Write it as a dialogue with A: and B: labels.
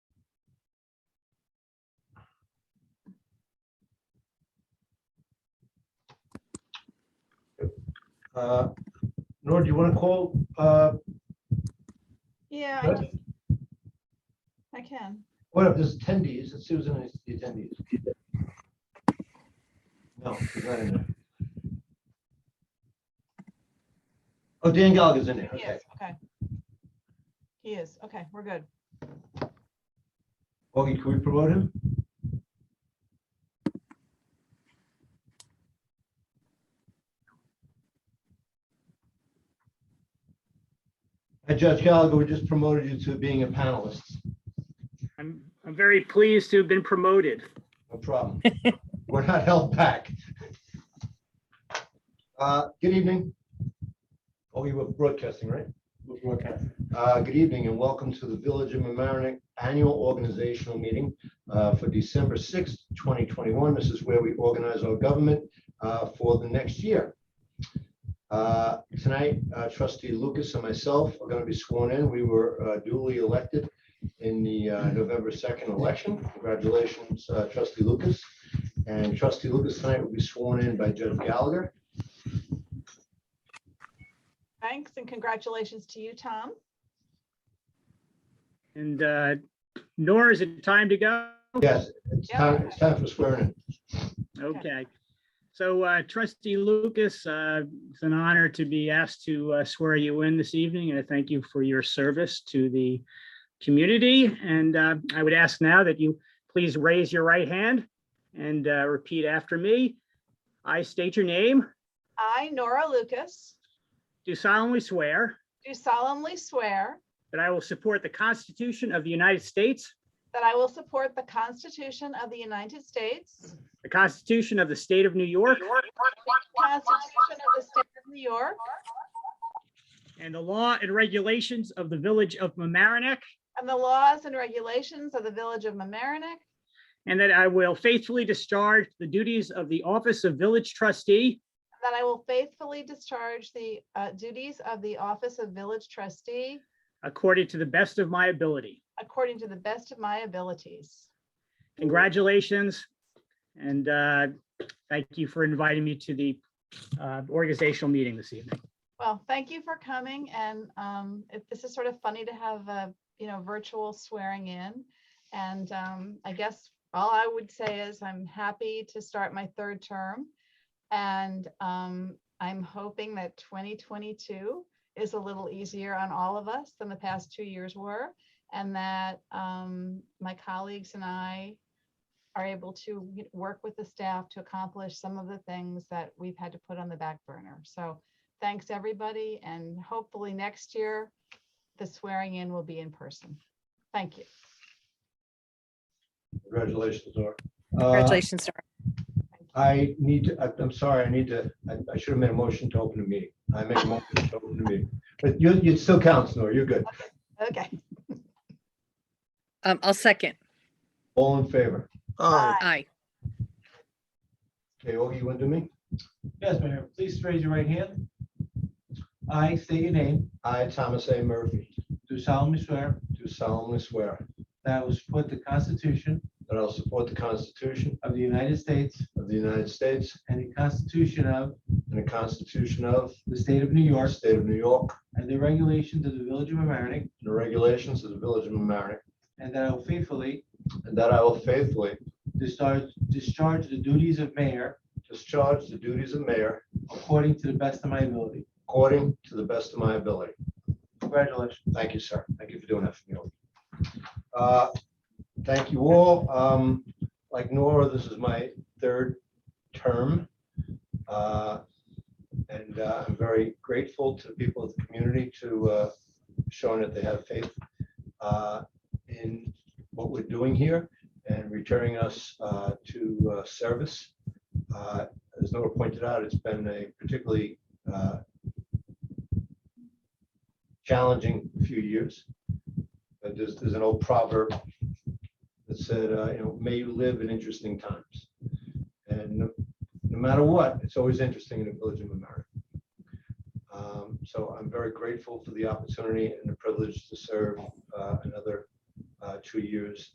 A: Uh, Nora, do you want to call, uh,
B: Yeah, I
A: Good.
B: just- I can.
A: what if there's attendees, it's Susan is the attendees? No, she's not in there. Oh, Dan Gallagher's in there,
B: He
A: okay.
B: is, okay. He is, okay, we're good.
A: Augie, can we promote him? Hey, Uh, Judge Gallagher, we just promoted you to being a panelist.
C: I'm, I'm very pleased to have been promoted.
A: No problem. We're not held back. Uh, Good evening. Oh, you were broadcasting, right? We're broadcasting. Uh, Good evening and welcome to the Village of mamaroneck Annual Organizational Meeting uh, for December 6th, 2021. This is where we organize our government uh, for the next year. Uh, Tonight, uh, trustee Lucas and myself are going to be sworn in. We were uh, duly elected in the uh, November 2nd election. Congratulations, uh, trustee Lucas. And trustee Lucas tonight will be sworn in by Judge Gallagher.
B: Thanks and congratulations to you, Tom.
C: And uh, Nora, is it time to go?
A: Yes, it's time, it's time for swearing
C: Okay. So uh, trustee Lucas, uh, it's an honor to be asked to uh, swear you in this evening, and I thank you for your service to the community. And uh, I would ask now that you please raise your right hand and uh, repeat after me. I state your name,
B: I, Nora Lucas,
C: do solemnly swear
B: do solemnly swear
C: that I will support the Constitution of the United States,
B: that I will support the Constitution of the United States,
C: the Constitution of the State of New York,
B: the Constitution of the State of New York,
C: And the law and regulations of the village of Mamaroneck,
B: and the laws and regulations of the Village of mamaroneck
C: and that I will faithfully discharge the duties of the office of village trustee
B: and that I will faithfully discharge the uh, duties of the Office of Village Trustee
C: according to the best of my ability.
B: according to the best of my abilities.
C: Congratulations. And uh, thank you for inviting me to the uh, organizational meeting this evening.
B: Well, thank you for coming and um, it- this is sort of funny to have a, you know, virtual swearing in. And um, I guess all I would say is I'm happy to start my third term. And um, I'm hoping that 2022 is a little easier on all of us than the past two years were. And that um, my colleagues and I are able to you know, work with the staff to accomplish some of the things that we've had to put on the back burner. So thanks, everybody, and hopefully next year, the swearing in will be in person. Thank you.
A: in. Congratulations, Nora. Uh,
D: Congratulations, sir.
A: I need to, I- I'm sorry, I need to, I I should have made a motion to open the meeting. I make a motion to open the meeting. But you, you still counts, Nora, you're good.
B: Okay,
D: Um, I'll second.
A: All in favor?
B: bye.
D: Aye.
A: Okay, Augie, you want to do me?
E: Yes, Mayor, please raise your right hand. I state your name,
A: I, Thomas A. Murphy,
E: do solemnly swear
A: do solemnly swear
E: that I will support the Constitution
A: that I will support the Constitution
E: of the United States
A: of the United States
E: and the Constitution of
A: and the Constitution of
E: the State of New
A: our
E: York
A: state of New York
E: and the regulations of the Village of Amerenik,
A: and the regulations of the Village of mamaroneck
E: and that I will faithfully
A: And that I will faithfully
E: discharge, discharge the duties of mayor
A: discharge the duties of mayor
E: according to the best of my ability.
A: according to the best of my ability.
E: Congratulations.
A: Thank you, sir. Thank you for doing that for me. Uh, Thank you all. Um, Like Nora, this is my third term. Uh, And uh, I'm very grateful to the people of the community to uh, showing that they have faith uh, in what we're doing here and returning us uh, to uh, service. Uh, As Nora pointed out, it's been a particularly uh, challenging few years. But there's, there's an old proverb that said, uh, you know, may you live in interesting times. And no- no matter what, it's always interesting in the Village of America. Um, So I'm very grateful for the opportunity and the privilege to serve uh, another uh, two years